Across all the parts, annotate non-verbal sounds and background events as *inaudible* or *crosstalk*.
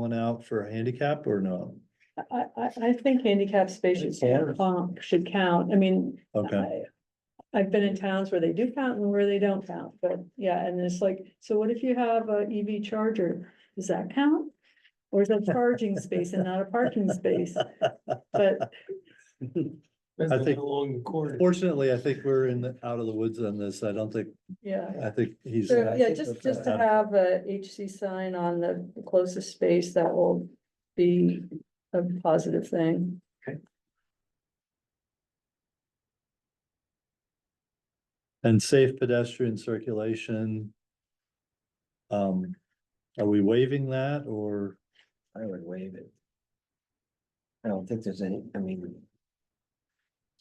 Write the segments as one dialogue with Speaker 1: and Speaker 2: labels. Speaker 1: one out for handicap or no?
Speaker 2: I, I, I think handicapped spaces,
Speaker 1: Yeah.
Speaker 2: um, should count, I mean.
Speaker 1: Okay,
Speaker 2: I- I've been in towns where they do count and where they don't count, but yeah, and it's like, so what if you have a EV charger? Does that count? Or is that *laughs* charging space and not a parking space? But
Speaker 1: I
Speaker 3: Depends on
Speaker 1: think-
Speaker 3: how long the corridor.
Speaker 1: fortunately, I think we're in the, out of the woods on this. I don't think,
Speaker 2: yeah,
Speaker 1: I think he's.
Speaker 2: so yeah,
Speaker 1: I think
Speaker 2: just,
Speaker 1: that's
Speaker 2: just to
Speaker 1: out.
Speaker 2: have a HC sign on the closest space, that will be a positive thing.
Speaker 1: And safe pedestrian circulation. Um, are we waiving that or?
Speaker 4: I would waive it. I don't think there's any, I mean,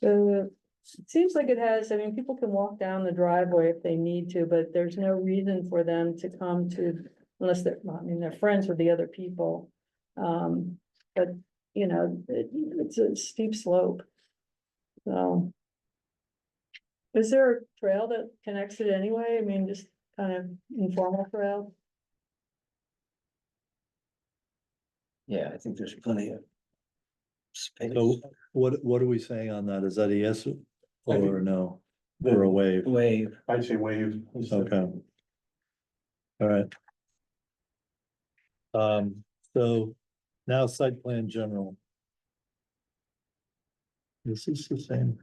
Speaker 2: So it seems like it has, I mean, people can walk down the driveway if they need to, but there's no reason for them to come to, unless they're, well, I mean, they're friends with the other people. Um, but, you know, it- it's a steep slope. So. Is there a trail that connects it anyway? I mean, just kind of informal trail?
Speaker 4: yeah, I think there's plenty of. Space,
Speaker 1: So what, what are we saying on that? Is that a yes
Speaker 3: I think-
Speaker 1: or a no? Or a waive?
Speaker 4: wave,
Speaker 3: I'd say wave.
Speaker 1: Okay. All right. Um, so now site plan general. This is the same.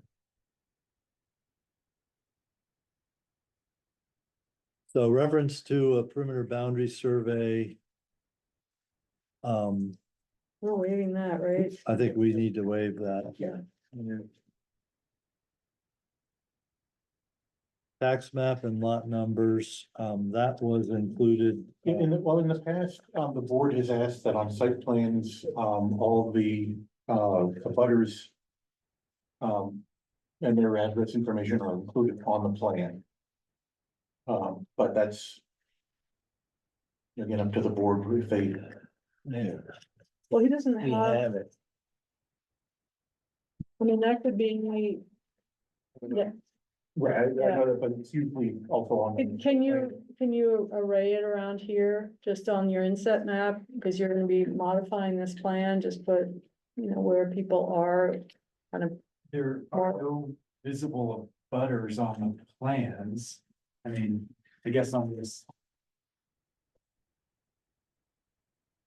Speaker 1: So reference to a perimeter boundary survey. Um,
Speaker 2: We're waiving that, right?
Speaker 1: I think we need to waive that.
Speaker 2: Yeah.
Speaker 1: Tax map and lot numbers, um, that was included. uh,
Speaker 5: In, in, the- well, in the past, um, the board has asked that on site plans, um, all the, uh, abutters um, and their address information are included on the plan. Um, but that's again, up to the board if they,
Speaker 4: yeah,
Speaker 2: Well, he doesn't
Speaker 4: we
Speaker 2: have,
Speaker 4: have it.
Speaker 2: I mean, that could be, yeah.
Speaker 5: right, I I know that, but it's usually also on.
Speaker 2: Can- Can you, can you array it around here, just on your inset map, because you're gonna be modifying this plan, just put, you know, where people are. Kind of,
Speaker 6: There are no visible butters on the plans. I mean, I guess on this,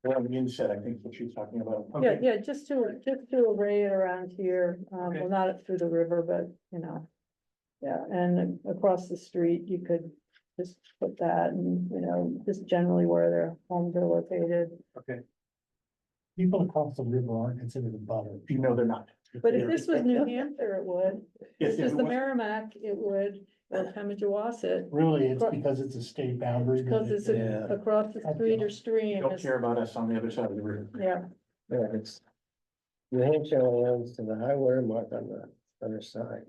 Speaker 5: Well, on the inset, I think what she's talking about.
Speaker 2: yeah,
Speaker 6: okay,
Speaker 2: yeah, just to, just to array it around here, um, well,
Speaker 6: Okay.
Speaker 2: not up through the river, but, you know. Yeah, and across the street, you could just put that, and, you know, just generally where their homes are located.
Speaker 6: okay.
Speaker 5: People across the river aren't considered a butter. You know, they're not.
Speaker 2: But if this was New Hampshire, it would, if
Speaker 5: Yes,
Speaker 2: this
Speaker 5: yes,
Speaker 2: was the
Speaker 5: it was-
Speaker 2: Merrimack, it would, or Pemigewasset.
Speaker 5: Really, it's
Speaker 2: Right.
Speaker 5: because it's a state boundary. but
Speaker 2: Because
Speaker 5: it-
Speaker 2: it's a-
Speaker 4: Yeah.
Speaker 2: across the street or
Speaker 5: You
Speaker 2: stream,
Speaker 5: don't
Speaker 2: it's-
Speaker 5: care about us on the other side of the river.
Speaker 2: yeah,
Speaker 4: Yeah, it's. New Hampshire lands to the high water mark on the other side.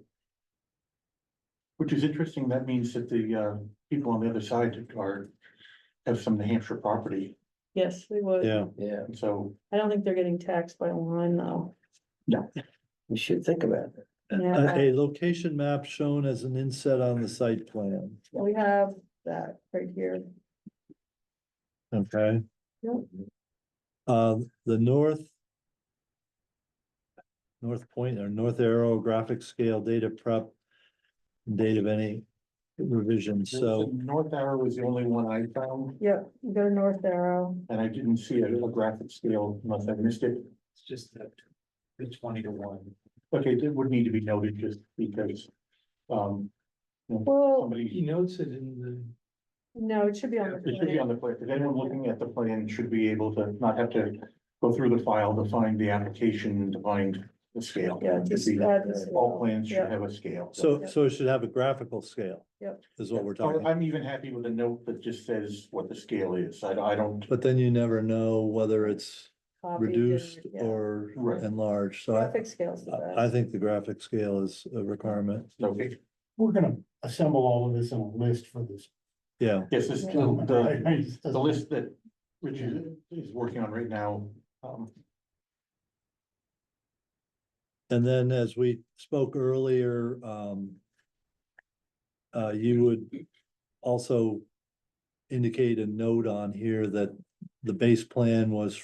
Speaker 5: Which is interesting, that means that the uh people on the other side are, have some New Hampshire property,
Speaker 2: yes, they would.
Speaker 1: Yeah,
Speaker 4: Yeah,
Speaker 5: and so.
Speaker 2: I don't think they're getting taxed by line though.
Speaker 4: we should think about it.
Speaker 1: a,
Speaker 2: Yeah,
Speaker 1: a location map shown as an inset on the site plan,
Speaker 2: we have that right here.
Speaker 1: okay?
Speaker 2: Yep.
Speaker 1: Uh, the north. North point or north arrow graphic scale data prep. Date of any revision, so
Speaker 5: North Arrow was the only one I found,
Speaker 2: Yep, you go to North Arrow.
Speaker 5: and I didn't see a a graphic scale unless I missed it.
Speaker 6: It's just that the twenty to one.
Speaker 5: Okay, it would need to be noted just because. Um,
Speaker 2: Well,
Speaker 5: somebody,
Speaker 3: notes it in
Speaker 2: no, it should be on the.
Speaker 5: it should be on the plan, if anyone looking at the plan should be able to not have to go through the file to find the application, to find the scale.
Speaker 2: Yeah, just add this.
Speaker 5: All plans should
Speaker 2: Yeah.
Speaker 5: have a scale.
Speaker 1: so so it should have a graphical scale.
Speaker 2: Yep.
Speaker 1: Is what we're talking,
Speaker 5: Or
Speaker 1: about.
Speaker 5: I'm even happy with a note that just says what the scale is. I, I don't,
Speaker 1: but then you never know whether it's
Speaker 2: copied and-
Speaker 1: reduced
Speaker 2: yeah. uh,
Speaker 1: or
Speaker 5: Right.
Speaker 1: enlarged, so I,
Speaker 2: Graphic scales. the
Speaker 1: I
Speaker 2: best.
Speaker 1: think the graphic scale is a requirement,
Speaker 5: okay,
Speaker 7: we're gonna assemble all of this in a list for this.
Speaker 1: yeah.
Speaker 5: yes, this, the,
Speaker 7: gentleman.
Speaker 5: the-
Speaker 7: *laughs* I- I just-
Speaker 5: the list that Richard is working on right now. Um,
Speaker 1: And then as we spoke earlier, um. Uh, you would also indicate a note on here that the base plan was